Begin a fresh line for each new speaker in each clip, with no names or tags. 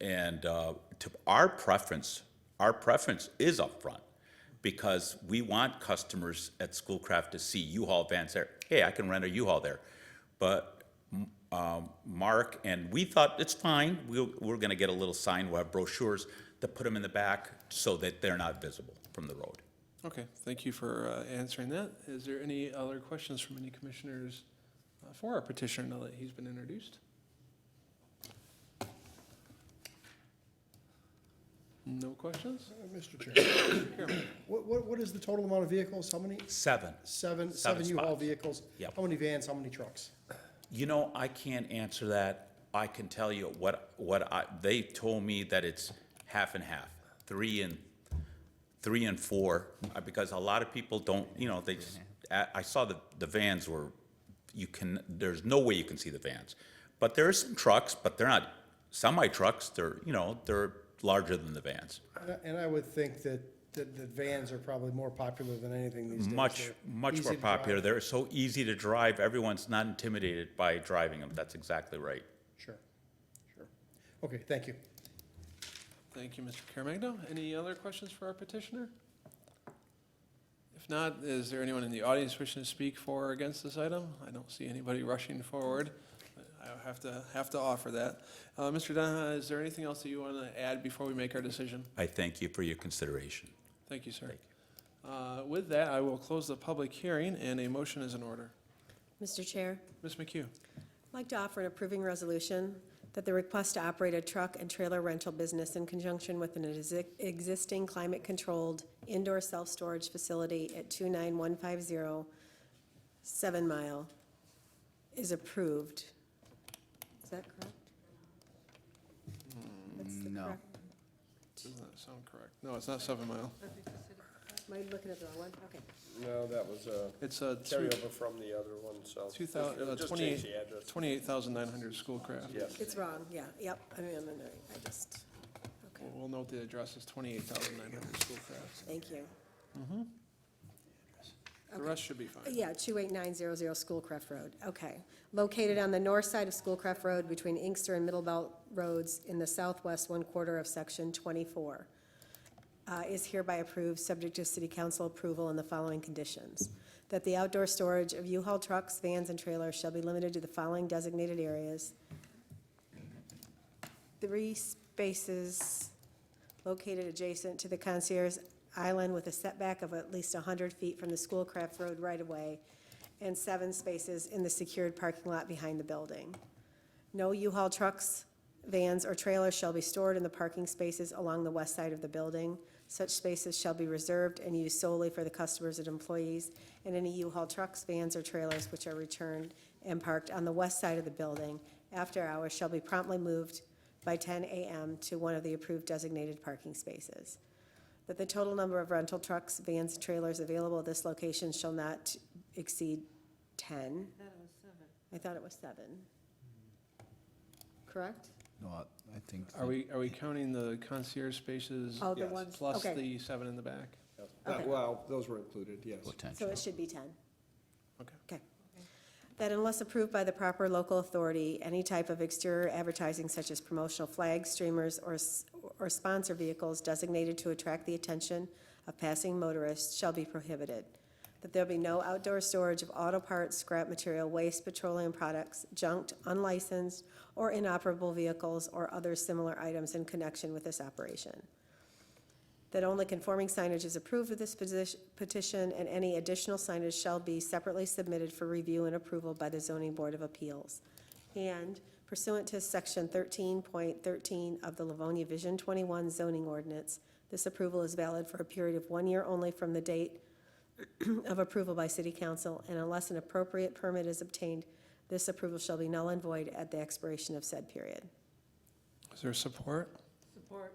And uh, to our preference, our preference is upfront because we want customers at Schoolcraft to see U-Haul vans there. Hey, I can rent a U-Haul there. But m- um, Mark and we thought it's fine. We'll, we're going to get a little sign. We'll have brochures to put them in the back so that they're not visible from the road.
Okay, thank you for uh, answering that. Is there any other questions from any commissioners uh, for our petitioner now that he's been introduced? No questions?
Uh, Mr. Chair, what, what, what is the total amount of vehicles? How many?
Seven.
Seven,
Seven
seven U-Haul
spots.
vehicles?
Yep.
How many vans, how many trucks?
You know, I can't answer that. I can tell you what, what I, they told me that it's half and half, three and, three and four, uh, because a lot of people don't, you know, they just, I, I saw the, the vans were, you can, there's no way you can see the vans. But there are some trucks, but they're not semi-trucks, they're, you know, they're larger than the vans.
And I- And I would think that, that the vans are probably more popular than anything these days.
Much,
They're
much
easy
more
to drive.
popular. They're so easy to drive, everyone's not intimidated by driving them. That's exactly right.
Sure, sure. Okay, thank you.
Thank you, Mr. Caremagno. Any other questions for our petitioner? If not, is there anyone in the audience wishing to speak for or against this item? I don't see anybody rushing forward. I have to, have to offer that. Uh, Mr. Dunha, is there anything else that you want to add before we make our decision?
I thank you for your consideration.
Thank you, sir. Uh, With that, I will close the public hearing, and a motion is in order.
Mr. Chair,
Ms. McHugh,
I'd like to offer an approving resolution that the request to operate a truck and trailer rental business in conjunction with an exi- existing climate-controlled indoor self-storage facility at 29150 Seven Mile is approved. Is that correct? That's the
no.
correct-
does that sound correct? No, it's not Seven Mile.
Am I looking at the wrong one? Okay.
No, that was a
It's a
carryover from the other one, so.
two thousand,
Just change the address.
twenty-eight thousand nine hundred Schoolcraft.
Yes.
It's wrong, yeah, yep, I mean, I'm in the- I just, okay,
We'll we'll note the address is twenty-eight thousand nine hundred Schoolcraft.
thank you.
The rest should be fine.
Yeah, 28900 Schoolcraft Road, okay. Located on the north side of Schoolcraft Road between Inkster and Middlebelt Roads in the southwest one quarter of Section 24. uh, Is hereby approved, subject to city council approval and the following conditions. That the outdoor storage of U-Haul trucks, vans, and trailers shall be limited to the following designated areas. Three spaces located adjacent to the concierge island with a setback of at least 100 feet from the Schoolcraft Road right-of-way, and seven spaces in the secured parking lot behind the building. No U-Haul trucks, vans, or trailers shall be stored in the parking spaces along the west side of the building. Such spaces shall be reserved and used solely for the customers and employees, and any U-Haul trucks, vans, or trailers which are returned and parked on the west side of the building after hours shall be promptly moved by 10 a.m. to one of the approved designated parking spaces. That the total number of rental trucks, vans, and trailers available at this location shall not exceed 10. I thought it was seven. Correct?
No, I I think.
Are we, are we counting the concierge spaces
Oh, the
Yes.
ones,
plus
okay,
the seven in the back?
Okay.
That- Well, those were included, yes.
so
Potential.
it should be 10.
Okay.
Okay. That unless approved by the proper local authority, any type of exterior advertising such as promotional flags, streamers, or, s- or sponsor vehicles designated to attract the attention of passing motorists shall be prohibited. That there be no outdoor storage of auto parts, scrap material, waste, petroleum products, junked, unlicensed, or inoperable vehicles or other similar items in connection with this operation. that only conforming signage is approved with this posi- petition, and any additional signage shall be separately submitted for review and approval by the zoning board of appeals. And pursuant to section thirteen point thirteen of the Livonia Vision twenty-one zoning ordinance, this approval is valid for a period of one year only from the date of approval by city council, and unless an appropriate permit is obtained, this approval shall be null and void at the expiration of said period.
Is there support? Support.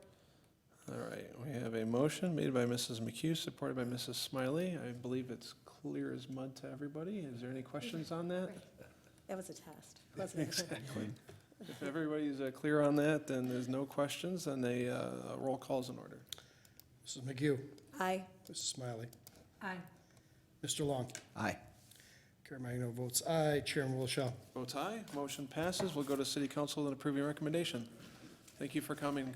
All right, we have a motion made by Mrs. McHugh, supported by Mrs. Smiley. I believe it's clear as mud to everybody. Is there any questions on that?
That was a test, wasn't it?
If everybody's uh, clear on that, then there's no questions, and a uh, roll call's in order.
Mrs. McGee,
Aye.
Mrs. Smiley,
Aye.
Mr. Long,
Aye.
Caremagno votes aye, Chairman Wilshaw.
Votes aye, motion passes. We'll go to city council and approve your recommendation. Thank you for coming.